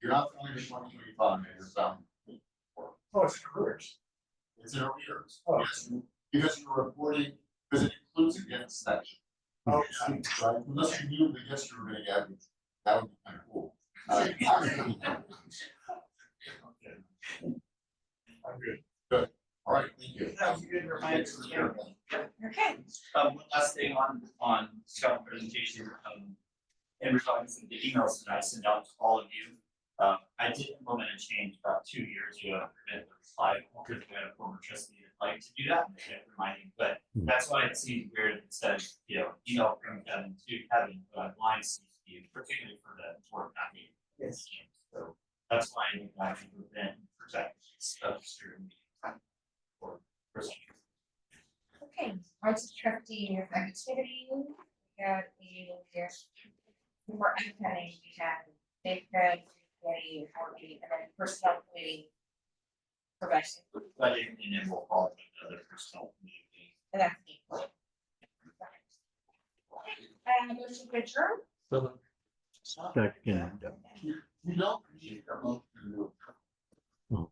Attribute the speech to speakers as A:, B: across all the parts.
A: finish one twenty-five, so.
B: Oh, it's careers.
A: It's in arrears,
B: Oh.
A: yes, you- because you're reporting, because it includes against section.
B: Oh, yeah.
A: Right, unless you knew the yes you were gonna get, that would be kind of cool. Uh,
B: I'm good.
A: All right, thank you.
C: That was a good reminder, yeah. Okay.
D: Um, one last thing on, on Scout presentation, um, in response to the emails that I sent out to all of you. Um I did implement a change about two years ago, I forget the slide, because we had a former trustee that liked to do that, and I kept reminding, but that's why it seems weird, it says, you know, email from Kevin to Kevin, but mine seems to be particularly for the board packet.
C: Yes.
D: So that's why I think I should prevent, protect, stuff, certain. Or, procedures.
E: Okay, arts trustee of activity, we got a, more upcoming, we have big grants, committee, our meeting, and then personnel committee. Progression,
D: But it, and it will fall to the other personnel community.
E: and that's the. point. And Uh, motion to adjourn?
F: Second.
A: You don't need a motion to do it.
F: Oh.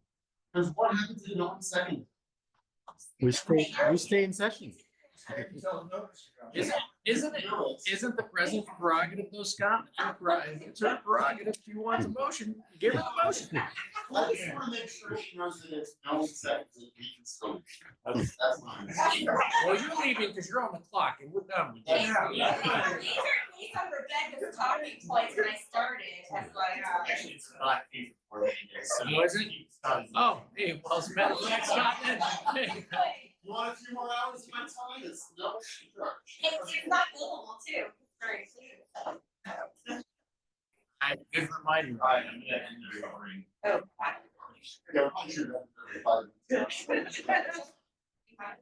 A: Because what happens if you don't second?
F: We stay, we stay in session.
B: Tell them no, Mr. Johnson.
G: Isn't, isn't it, isn't the president's prerogative though, Scott? Her prerogative- It's her prerogative. If you want a motion, give her the motion.
A: I just wanna make sure she knows that it's no second, that we can still. That's, that's mine.
G: Well, you're leaving because you're on the clock and we're done with
E: These
G: that.
E: are, these are these are Rebecca's talking points when I started, that's why uh, I.
D: Actually, it's not even for me, it's.
G: Was it? Oh, hey, well, it's better than Scott then. Hey,
A: You want a few more hours of my time? It's no charge.
E: It's, it's not billable too, very soon.
G: Good reminder.
D: Alright, I'm gonna end the recording.
E: Oh. wow.
A: Yeah, I should have.
E: Bye.